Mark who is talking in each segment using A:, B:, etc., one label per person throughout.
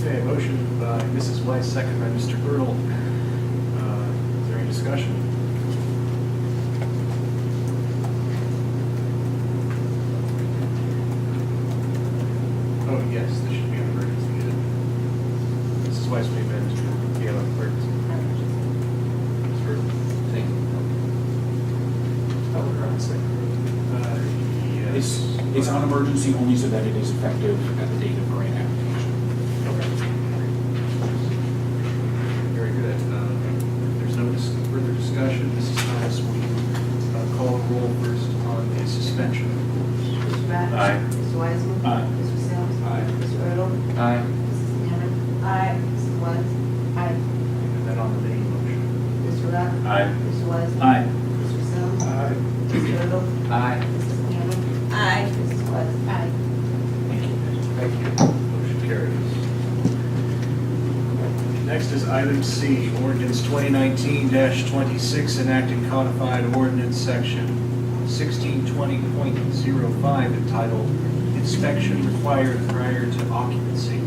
A: Motion by Mrs. Weiss, second by Mr. Girdle. Uh, Is there any discussion? Oh, yes, this should be on record. Mrs. Weiss, will you manage to get on record? Mr. Girdle?
B: Thank you.
C: Oh, we're on second.
A: Uh,
B: It's,
A: Yes.
B: it's on emergency only so that it is effective at the date of grant application.
A: Okay. Very good. Uh, There's no dis- further discussion. Mrs. Thomas, will you uh, call the roll first on the suspension of the rules?
D: Mr. Matt?
B: Aye.
D: Mr. Weisman?
B: Aye.
D: Mr. Sims?
B: Aye.
D: Mr. Riddle?
B: Aye.
D: Mrs. Hammond? Aye. Mrs. Woods? Aye.
A: And then on the main motion.
D: Mr. Matt?
B: Aye.
D: Mr. Weisman?
B: Aye.
D: Mr. Sims?
A: Aye.
D: Mr. Riddle?
B: Aye.
D: Mrs. Hammond? Aye. Mrs. Woods? Aye.
B: Thank you.
A: Thank you. Motion carries. Next is item C, ordinance 2019-26, enacting codified ordinance section 1620.05 entitled Inspection Required Prior to Occupancy,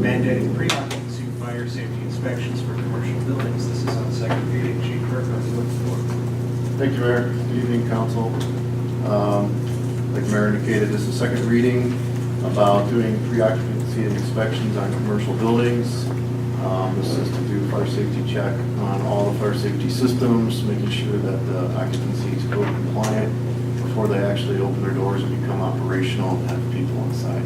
A: mandating pre-occupancy fire safety inspections for commercial buildings. This is on second reading. Chief Kirk, on the floor.
E: Thank you, Mayor. Good evening, council. Um, Like the Mayor indicated, this is the second reading about doing pre-occupancy inspections on commercial buildings. Um, This is to do fire safety check on all the fire safety systems, making sure that the occupancy is code compliant before they actually open their doors and become operational and have people inside.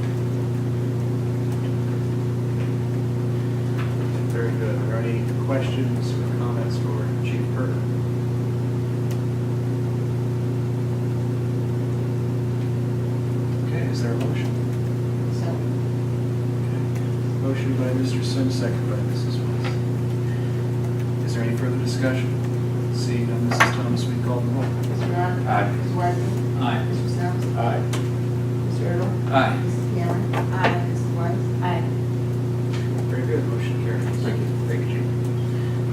A: Very good. Are there any questions or comments for Chief Kirk? Okay, is there a motion?
D: So,
A: Motion by Mr. Sims, second by Mrs. Weiss. Is there any further discussion? Seeing none, Mrs. Thomas, we call the roll.
D: Mr. Matt?
B: Aye.
D: Mr. Weisman?
B: Aye.
D: Mr. Sims?
E: Aye.
D: Mr. Riddle?
B: Aye.
D: Mrs. Hammond? Aye. Mrs. Woods? Aye.
A: Very good, motion carries.
E: Thank you.
A: Thank you, Chief.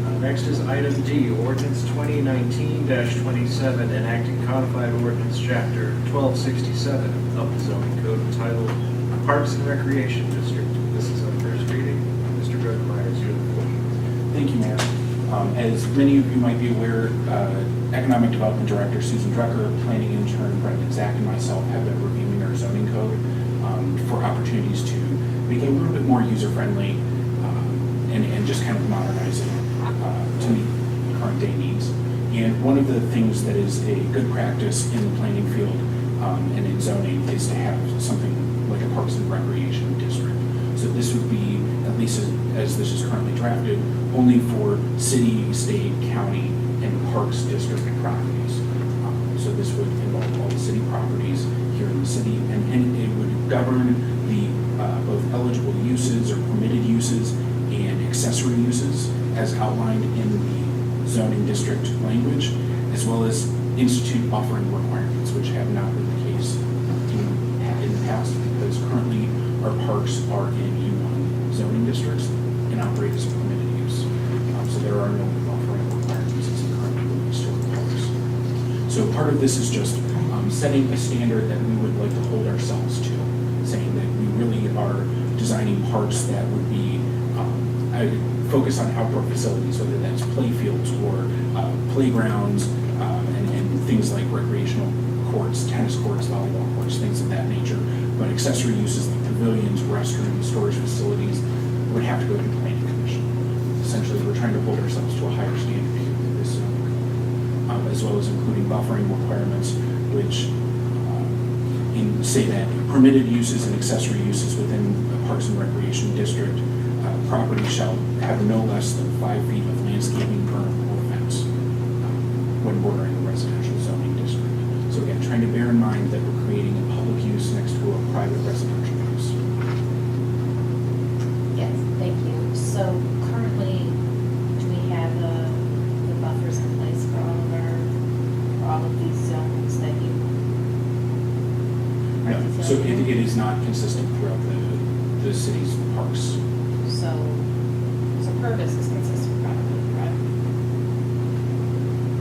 A: Uh, Next is item D, ordinance 2019-27, enacting codified ordinance chapter 1267 of the zoning code entitled Parks and Recreation District. This is on first reading. Mr. Brodemeyer is here.
B: Thank you, Mayor. Um, As many of you might be aware, uh, Economic Development Director Susan Drucker, planning intern Brendan Zach, and myself have been reviewing our zoning code um, for opportunities to make it a little bit more user-friendly um, and and just kind of modernize it uh, to meet current day needs. And one of the things that is a good practice in the planning field um, and in zoning is to have something like a Parks and Recreation District. So this would be, at least as- as this is currently drafted, only for city, state, county, and parks district properties. Um, So this would involve all the city properties here in the city, and and it would govern the, uh, both eligible uses or permitted uses and accessory uses as outlined in the zoning district language, as well as institute buffering requirements, which have not been the case in in the past, because currently our parks are in U1 zoning districts and operate as a permitted use. Um, So there are no buffering requirements as in currently in historic parks. So part of this is just um, setting a standard that we would like to hold ourselves to, saying that we really are designing parks that would be, um, I would focus on outdoor facilities, whether that's playfields or uh, playgrounds um, and and things like recreational courts, tennis courts, volleyball courts, things of that nature. But accessory uses like pavilions, restrooms, storage facilities would have to go to the planning commission. Essentially, we're trying to hold ourselves to a higher standard here in this zoning code um, as well as including buffering requirements, which um, in, say that permitted uses and accessory uses within the Parks and Recreation District, uh, property shall have no less than five feet of landscaping berm or fence um, when bordering the residential zoning district. So again, trying to bear in mind that we're creating a public use next to a private residential use.
F: Yes, thank you. So currently, do we have the, the buffers in place for all of our, for all of these zones that you?
B: No, So it, it is not consistent throughout the, the city's parks.
F: So, so purpose is consistent probably, right?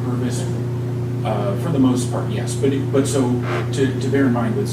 B: Purvis, uh, for the most part, yes, but, it- but so, to, to bear in mind with